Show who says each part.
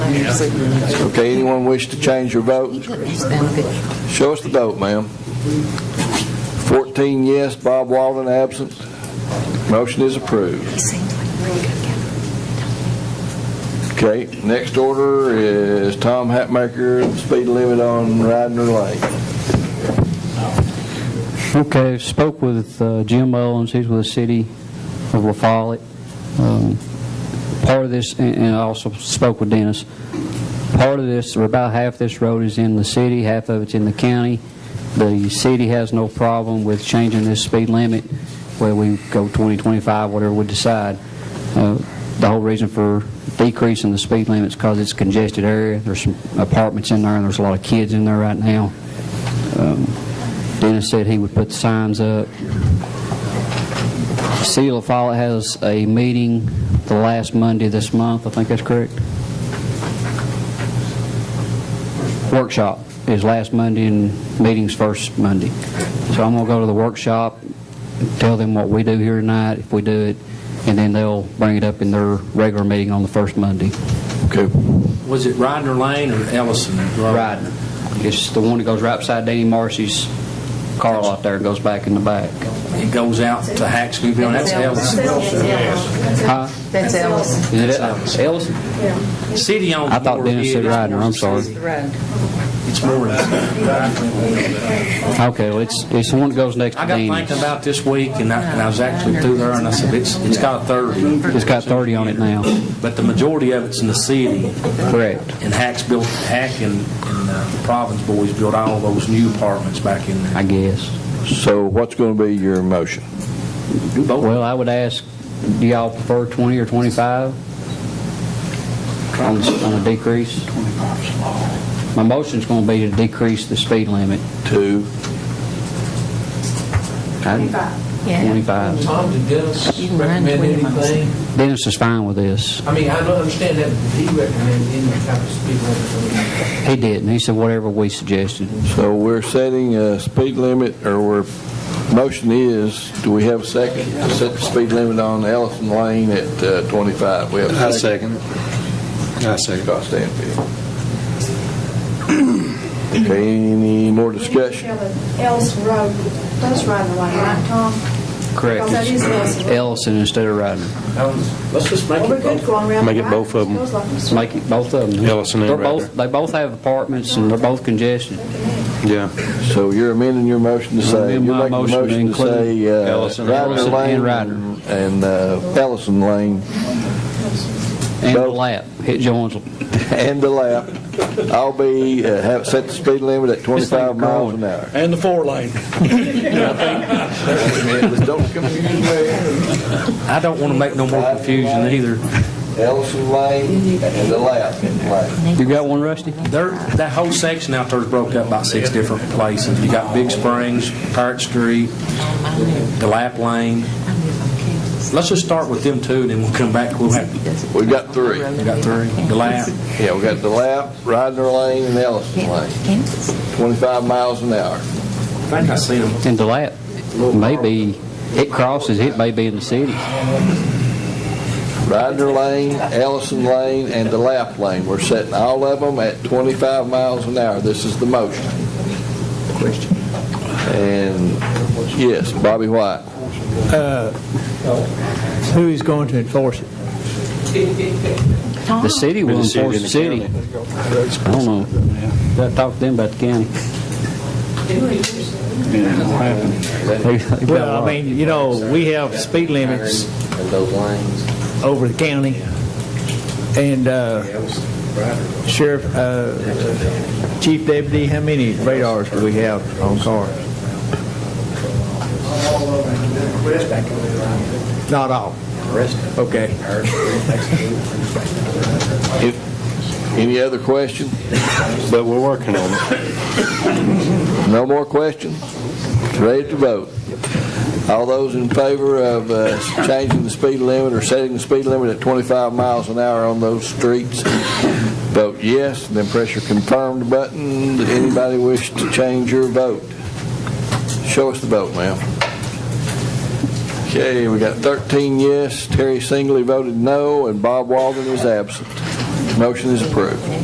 Speaker 1: Okay, anyone wish to change your vote?
Speaker 2: He's done good.
Speaker 1: Show us the vote, ma'am. 14 yes, Bob Walden absent. Motion is approved.
Speaker 2: He seems like a really good guy.
Speaker 1: Okay, next order is Tom Hatmaker, speed limit on Radnor Lane.
Speaker 3: Okay, spoke with uh, Jim Owens, he's with the city of La Follette. Um, Part of this, and and I also spoke with Dennis, part of this, or about half this road is in the city, half of it's in the county. The city has no problem with changing this speed limit, whether we go 20, 25, whatever we decide. Uh, The whole reason for decreasing the speed limit is because it's a congested area, there's some apartments in there, and there's a lot of kids in there right now. Dennis said he would put signs up. City of La Follette has a meeting the last Monday this month, I think that's correct? Workshop is last Monday and meeting's first Monday. So I'm going to go to the workshop, tell them what we do here tonight, if we do it, and then they'll bring it up in their regular meeting on the first Monday.
Speaker 1: Okay,
Speaker 4: Was it Ryder Lane or Ellison? Road?
Speaker 3: Riding. It's the one that goes right beside Danny Marcy's car lot there, goes back in the back.
Speaker 4: It goes out to Hacksonville, that's Ellison.
Speaker 3: Huh?
Speaker 2: That's Ellison.
Speaker 3: Is it Ellison?
Speaker 4: City owns more.
Speaker 3: I thought
Speaker 4: of
Speaker 3: Dennis
Speaker 4: it.
Speaker 3: said
Speaker 4: It's
Speaker 3: Ryder,
Speaker 4: more
Speaker 3: I'm
Speaker 4: the city.
Speaker 3: sorry.
Speaker 2: Road.
Speaker 4: It's more than,
Speaker 3: Okay, well, it's, it's the one that goes next to
Speaker 4: I got thinking
Speaker 3: Dennis.
Speaker 4: about this week, and I, and I was actually through there, and I said, it's, it's got a thirty,
Speaker 3: It's got 30 on it now.
Speaker 4: but the majority of it's in the city,
Speaker 3: Correct.
Speaker 4: and Hacks built, Hack and, and uh, Providence Boys built all those new apartments back in there.
Speaker 3: I guess.
Speaker 1: so what's going to be your motion?
Speaker 3: Well, I would ask, do y'all prefer 20 or 25 on s- on a decrease? My motion's going to be to decrease the speed limit.
Speaker 1: Two,
Speaker 2: Yeah.
Speaker 3: 25.
Speaker 5: Tom, did Dennis
Speaker 2: You can run
Speaker 5: recommend
Speaker 2: 20 miles.
Speaker 5: anything?
Speaker 3: Dennis is fine with this.
Speaker 5: I mean, I don't understand that, but did he recommend any type of speed limit?
Speaker 3: He didn't. He said whatever we suggested.
Speaker 1: so we're setting a speed limit, or we're, motion is, do we have a second? To set the speed limit on Ellison Lane at uh, 25. We have
Speaker 6: I second it. I second it.
Speaker 1: Scott Stanfield. Okay, any more discussion?
Speaker 7: Ellis Road does run the way, right, Tom?
Speaker 3: Correct.
Speaker 7: Because that is Ellison.
Speaker 3: Ellison instead of Ryder.
Speaker 5: Um, Let's just make
Speaker 7: Well,
Speaker 5: it
Speaker 7: we're good going around.
Speaker 6: Make it both of them.
Speaker 3: Let's make it both of them.
Speaker 6: Ellison and
Speaker 3: They're both-
Speaker 6: Ryder.
Speaker 3: They both have apartments and they're both congested.
Speaker 6: Yeah.
Speaker 1: So you're amending your motion to say,
Speaker 3: amend
Speaker 1: you're
Speaker 3: my
Speaker 1: making a
Speaker 3: motion to
Speaker 1: motion to
Speaker 3: include
Speaker 1: say uh,
Speaker 6: Ellison.
Speaker 1: Ryder
Speaker 3: Ellison and Ryder.
Speaker 1: Lane and uh, Ellison Lane
Speaker 3: And the
Speaker 1: Both.
Speaker 3: lap, hit Jones.
Speaker 1: and the lap. I'll be, uh, have, set the speed limit at 25 miles an hour.
Speaker 8: And the four lane.
Speaker 1: Don't confuse me.
Speaker 4: I don't want to make no more confusion either.
Speaker 1: Ellison Lane and the lap. Lane.
Speaker 3: You got one, Rusty?
Speaker 4: There, that whole section out there is broke up by six different places. You got Big Springs, Parrot Street, the Lap Lane. Let's just start with them two, then we'll come back, we'll have,
Speaker 1: We got three.
Speaker 4: we got three, the Lap.
Speaker 1: Yeah, we got the lap, Ryder Lane and Ellison Lane, 25 miles an hour.
Speaker 4: I think I seen them.
Speaker 3: And the lap, maybe, it crosses, it may be in the city.
Speaker 1: Ryder Lane, Ellison Lane, and the Lap Lane. We're setting all of them at 25 miles an hour. This is the motion. And, yes, Bobby White.
Speaker 8: Who is going to enforce it?
Speaker 3: The city will
Speaker 6: The city
Speaker 3: enforce
Speaker 6: and
Speaker 3: the
Speaker 6: the
Speaker 3: city. I don't know. Gotta talk to them about the county. They- they got a
Speaker 8: Well,
Speaker 3: lot.
Speaker 8: I mean, you know, we have speed limits over the county, and uh, Sheriff, uh, Chief Deputy, how many radars do we have on cars? Not all? Okay.
Speaker 1: If- Any other question?
Speaker 6: But we're working on it.
Speaker 1: No more questions? Ready to vote? All those in favor of uh, changing the speed limit or setting the speed limit at 25 miles an hour on those streets, vote yes, then press your confirmed button. Did anybody wish to change your vote? Show us the vote, ma'am. Okay, we got 13 yes, Terry Singley voted no, and Bob Walden is absent. Motion is approved.